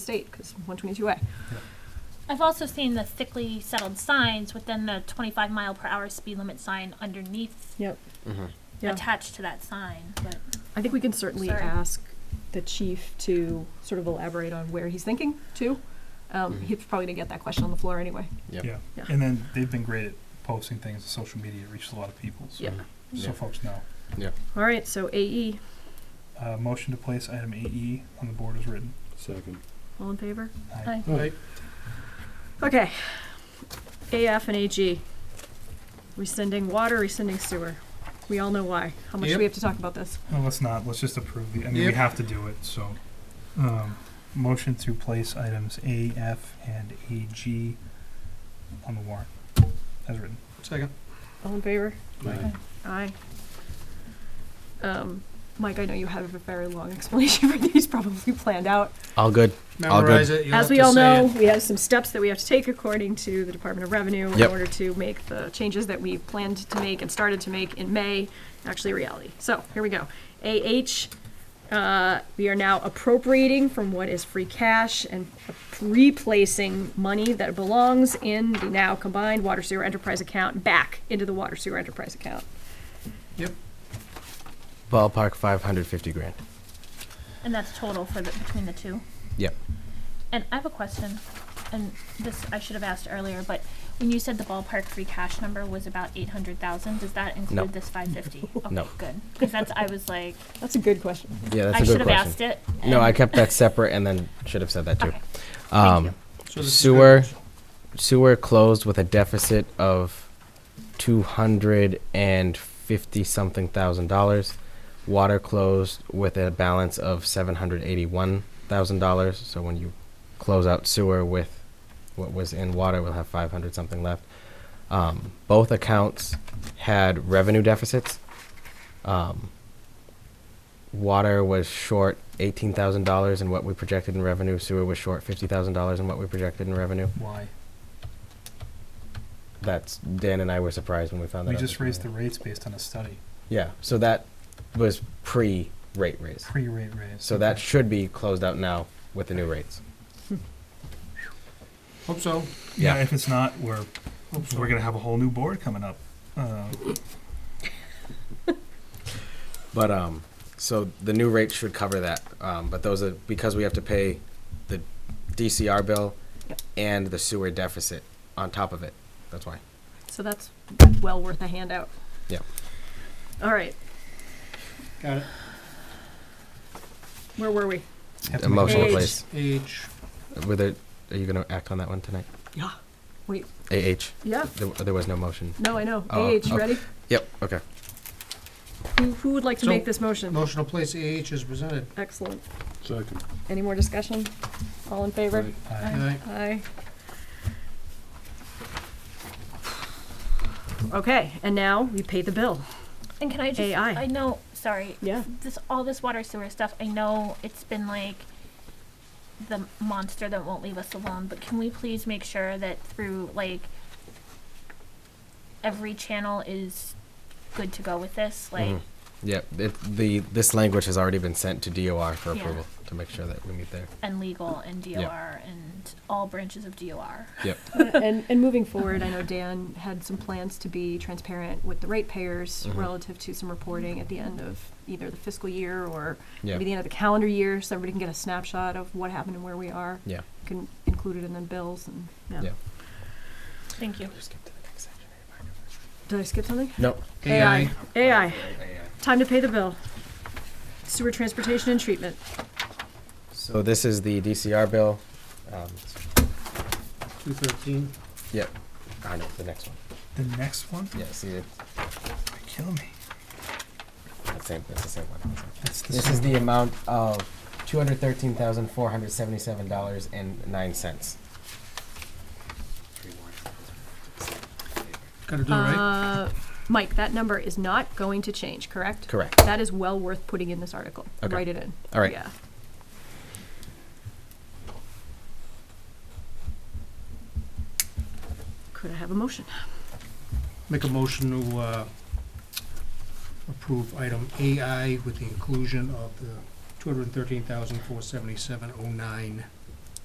state, because one twenty-two A. I've also seen the thickly settled signs within the twenty-five mile per hour speed limit sign underneath, Yep. Mm-hmm. Yeah. attached to that sign, but. I think we can certainly Sorry. ask the chief to sort of elaborate on where he's thinking too. Um, Mhm. he's probably gonna get that question on the floor anyway. Yep. Yeah. Yeah. And then they've been great at posting things to social media. It reaches a lot of people. So, Yeah. so Yeah. folks know. All right, so E, AE, Uh, motion to place item AE on the board is written. Second. all in favor? Aye. Okay. AF and AG. Rescinding water, rescinding sewer. We all know why. How much do we have to talk about this? No, let's not. Let's just approve the. I mean, Yep. we have to do it. So, um, motion to place items A, F, and AG on the warrant as written. Second. All in favor? Aye. Aye. Um, Mike, I know you have a very long explanation for these, probably planned out. All good. All good. Memorize it. You'll As have we to all say know, it. we have some steps that we have to take according to the Department of Revenue in Yep. order to make the changes that we planned to make and started to make in May actually a reality. So here we go. AH, uh, we are now appropriating from what is free cash and replacing money that belongs in the now combined water sewer enterprise account back into the water sewer enterprise account. Ballpark 550 grand. And that's total for the, between the two? Yep. And I have a question, and this I should have asked earlier, but when you said the ballpark free cash number was about eight hundred thousand, does that No. include this five fifty? No. Okay, good, because that's, I was like, That's a good question. Yeah, that's a I good should have question. asked it. No, I and- kept that separate and then should have said that too. Okay, um, you. So this is Sewer, good. sewer closed with a deficit of 250 something thousand dollars. Water closed with a balance of 781 thousand dollars. So when you close out sewer with what was in water, we'll have 500 something left. Um, both accounts had revenue deficits. Um, water was short eighteen thousand dollars in what we projected in revenue. Sewer was short fifty thousand dollars in what we projected in revenue. Why? That's Dan and I were surprised when we found that. We out just this raised the morning. rates based on a study. yeah. So that was pre rate raise. Pre-rate raise. So that should be closed out now with the new rates. Hope so. yeah. yeah. If it's not, we're Hope so. we're gonna have a whole new board coming up. Uh, But um, so the new rate should cover that. Um, but those are because we have to pay the DCR bill Yep. and the sewer deficit on top of it. That's why. So that's well worth a handout. Yeah. All right, Got it. where were we? have to make a Emotional Age. motion. Oh, place. Age. Whether are you going to act on that one tonight? Yeah. Wait, AH. yeah, There, there was no motion. no, I know. Oh, AH, you oh. ready? Yep. Okay. Who, who would like to So- make this motion? Motion to place AH is presented. Excellent. Second. Any more discussion? All in favor? Aye. Aye. Aye. Okay, and now we pay the bill. And can I just, AI. I know, sorry, Yeah. this all this water sewer stuff i know it's been like the monster that won't leave us alone but can we please make sure that through like every channel is good to go with this like Mhm. Yep. It, the this language has already been sent to DOR for Yeah. approval to make sure that we meet there. and legal and dor Yeah. and all branches of dor Yep. And, and moving forward, I know Dan had some plans to be transparent with the ratepayers Mhm. relative to some reporting at the end of either the fiscal year or maybe Yep. the end of the calendar year, so everybody can get a snapshot of what happened and where we are. Yeah. Can include it in the bills and, yeah. Yeah. thank you Did I skip something? No. AI. AI. Time to pay the bill. Sewer transportation and treatment. So this is the DCR bill. Um, Two thirteen. yep. I know the next one. The next one, Yeah. See, it, kill me. it's same. It's the same one. That's the This is the amount of two hundred thirteen thousand four hundred seventy-seven dollars and nine cents. Gotta do it right. Uh, Mike, that number is not going to change, correct? Correct. That is well worth putting in this article. Okay. Write it in. All right. Yeah. Could I have a motion? Make a motion to uh, approve item AI with the inclusion of the two hundred and thirteen thousand, four seventy-seven oh nine